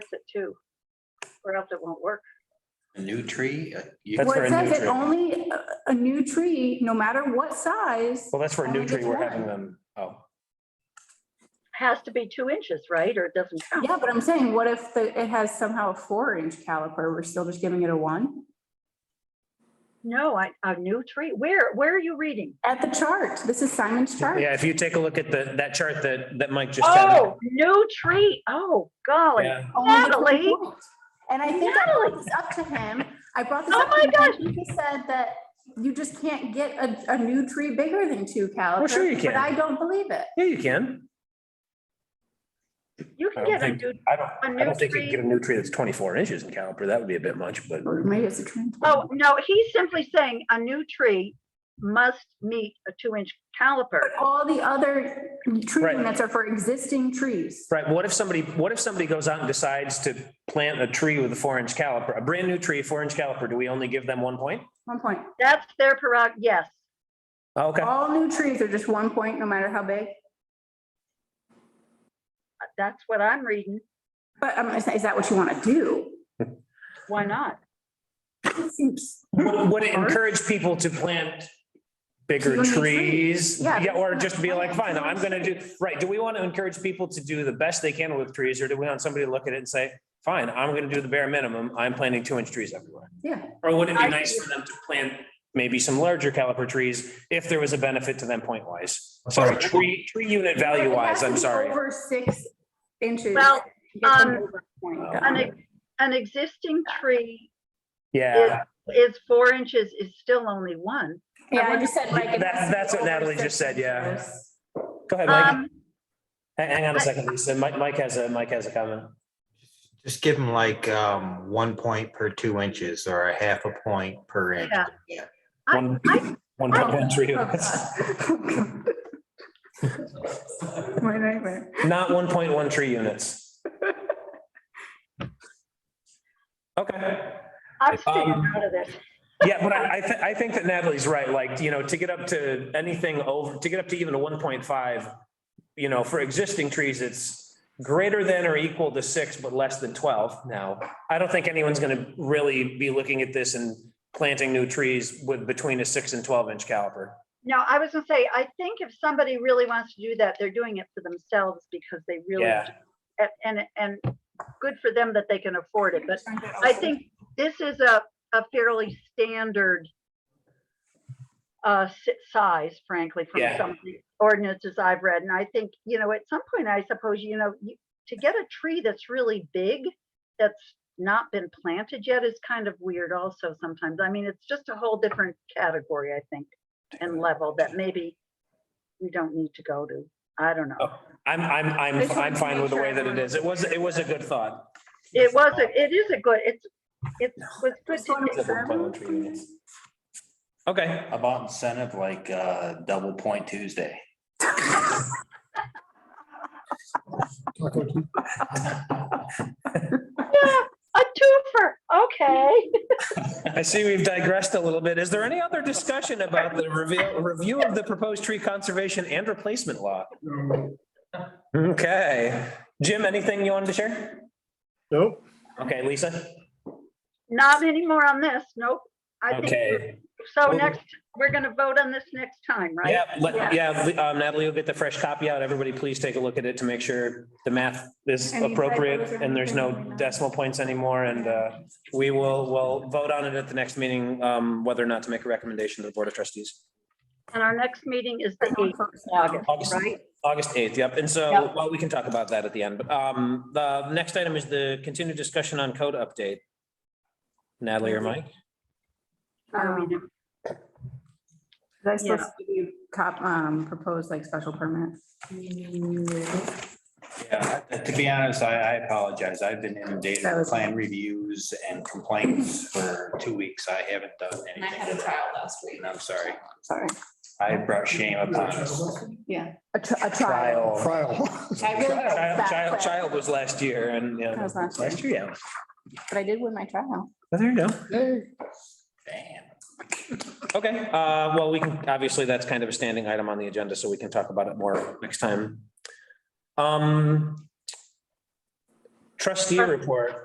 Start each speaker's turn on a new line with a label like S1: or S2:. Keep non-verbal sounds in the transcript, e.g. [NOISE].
S1: too, or else it won't work.
S2: A new tree? uh, you-
S3: That's
S4: Well,
S3: for
S4: it
S3: a new
S4: says that
S3: tree.
S4: only a- a new tree, no matter what size.
S3: Well, that's for
S1: Oh,
S3: a new
S4: Only
S3: tree.
S4: gets
S3: We're
S4: one.
S3: having them, oh,
S1: Has to be two inches, right? Or it doesn't
S3: Oh.
S1: count.
S4: Yeah, but I'm saying, what if the- it has somehow a four inch caliper? We're still just giving it a one?
S1: No, I, a new tree. Where, where are you reading?
S4: At the chart, this is Simon's chart.
S3: yeah, if you take a look at the, that chart that, that Mike just had. up,
S1: Oh, new tree. Oh, golly.
S3: yeah,
S4: Only gets one
S1: Natalie.
S4: point. And I think I brought this up to him. I brought this
S1: Oh
S4: up. to
S1: my
S4: him, and
S1: gosh.
S4: He said that you just can't get a, a new tree bigger than two calipers.
S3: sure you can.
S4: But I don't believe it.
S3: Yeah, you can.
S1: You
S3: I
S1: can
S3: don't
S1: get a
S3: think-
S1: new,
S3: I don't,
S1: a
S3: I
S1: new
S3: don't think you can
S1: tree.
S3: get a new tree that's twenty-four inches in caliper. That would be a bit much, but
S4: Or maybe it's a tree.
S1: Oh, no, he's simply saying a new tree must meet a two inch caliper.
S4: All the other tree
S3: Right.
S4: limits are for existing trees.
S3: Right, what if somebody, what if somebody goes out and decides to plant a tree with a four inch caliper, a brand new tree, four inch caliper, do we only give them one point?
S4: One point.
S1: That's their prerogative. Yes.
S3: Oh, Okay,
S4: [LAUGHS] All new trees are just one point, no matter how big.
S1: That's what I'm reading.
S4: But um, is that- is that what you want to do?
S1: Why not?
S4: It seems-
S3: would would it encourage people to plant bigger
S4: Two new
S3: trees?
S4: trees, yeah.
S3: Yeah, or just be like, fine, I'm gonna do,
S4: Trees.
S3: right, do we want to encourage people to do the best they can with trees, or do we want somebody to look at it and say, fine, I'm gonna do the bare minimum, I'm planting two inch trees everywhere?
S4: Yeah,
S3: Or would it
S1: I-
S3: be nice for them to plant maybe some larger caliper trees if there was a benefit to them point wise? Sorry, tree, tree unit value
S4: It has
S3: wise,
S4: to
S3: I'm
S4: be
S3: sorry.
S4: Over six inches.
S1: Well,
S4: Get them
S1: um,
S4: over a point.
S3: Oh.
S1: An, ex- an existing tree
S3: Yeah,
S1: is four inches is still only one.
S4: Yeah, I just said like. it
S3: That-
S4: has to be
S3: that's what
S4: over
S3: Natalie
S4: six
S3: just said, yeah.
S4: inches.
S3: go ahead, Mike.
S1: Um,
S3: Hang hang on a
S1: I-
S3: second, Lisa. Mike, Mike has a, Mike has a comment.
S5: Just give them like um, one point per two inches or a half a point per inch.
S1: Yeah. I-
S3: One,
S1: I-
S3: one point one tree units,
S4: My nightmare.
S3: [LAUGHS] not one point one tree units. Okay.
S1: I'm sticking
S3: Um,
S1: out of this.
S3: Yeah, but I, I, thi- I think that Natalie's right, like, you know, to get up to anything over, to get up to even a one point five, you know, for existing trees, it's greater than or equal to six, but less than twelve now. I don't think anyone's gonna really be looking at this and planting new trees with, between a six and twelve inch caliper.
S1: No, I was gonna say, I think if somebody really wants to do that, they're doing it for themselves because they really,
S3: Yeah.
S1: do. and, and, and good for them that they can afford it, but I think this is a, a fairly standard uh, si- size, frankly, from
S3: Yeah.
S1: some of the ordinances I've read, and I think, you know, at some point, I suppose, you know, you- to get a tree that's really big, that's not been planted yet is kind of weird also sometimes. I mean, it's just a whole different category, I think, and level that maybe we don't need to go to. I don't know.
S3: Oh. I'm, I'm,
S4: I
S3: I'm,
S4: just wanted
S3: I'm
S4: to
S3: fine
S4: make
S3: with the
S4: sure
S3: way that it
S4: everyone
S3: is. It was, it was a good thought.
S1: It was, a it is a good, it's, it was good
S4: Just
S1: to
S4: wanted
S1: get
S4: to-
S3: Okay,
S2: How About incentive like uh, double point Tuesday.
S1: Yeah, a twofer, okay.
S3: I see we've digressed a little bit. Is there any other discussion about the review, review of the proposed tree conservation and replacement law? Okay, Jim, anything you wanted to share?
S6: Nope.
S3: Okay, Lisa?
S1: Not anymore on this, nope. I think, we're-
S3: Okay,
S1: so
S3: Well-
S1: next, we're gonna vote on this next time, right?
S3: yeah, let- yeah, um, Natalie will get the fresh copy out. Everybody, please take a look at it to make sure the math is
S4: And the
S3: appropriate
S4: typos are
S3: and there's no
S4: everything.
S3: decimal points anymore. And uh, we will, will vote on it at the next meeting, um, whether or not to make a recommendation to the Board of Trustees.
S1: And our next meeting is the
S4: Everyone
S1: eighth
S4: focus
S1: of August,
S3: August.
S1: right?
S3: August eighth, yep. And so,
S1: Yep.
S3: well, we can talk about that at the end, but um, the next item is the continued discussion on code update. Natalie or Mike?
S1: Are we
S4: Um, Did I supposed
S1: Yeah.
S4: to give you cop, um, propose like special permit?
S2: Yeah, to be honest, I, I apologize. I've been inundated
S4: That
S2: with
S4: was-
S2: plan reviews and complaints for two weeks. I haven't done
S7: And I
S2: anything.
S7: had a
S2: with
S7: trial
S2: that.
S7: last week.
S2: And I'm sorry.
S4: Sorry.
S2: I brought shame upon us.
S4: Yeah. A tri- a trial.
S6: Trial.
S3: Trial.
S4: I really felt
S3: Child,
S4: bad,
S3: child,
S4: but-
S3: child was last year and, yeah.
S4: That was last year.
S3: Last year, yeah.
S4: But I did win my trial.
S3: Well, There you go.
S6: Hey.
S2: Damn.
S3: Okay, uh, well, we can, obviously, that's kind of a standing item on the agenda, so we can talk about it more next time. Um. Trustee report.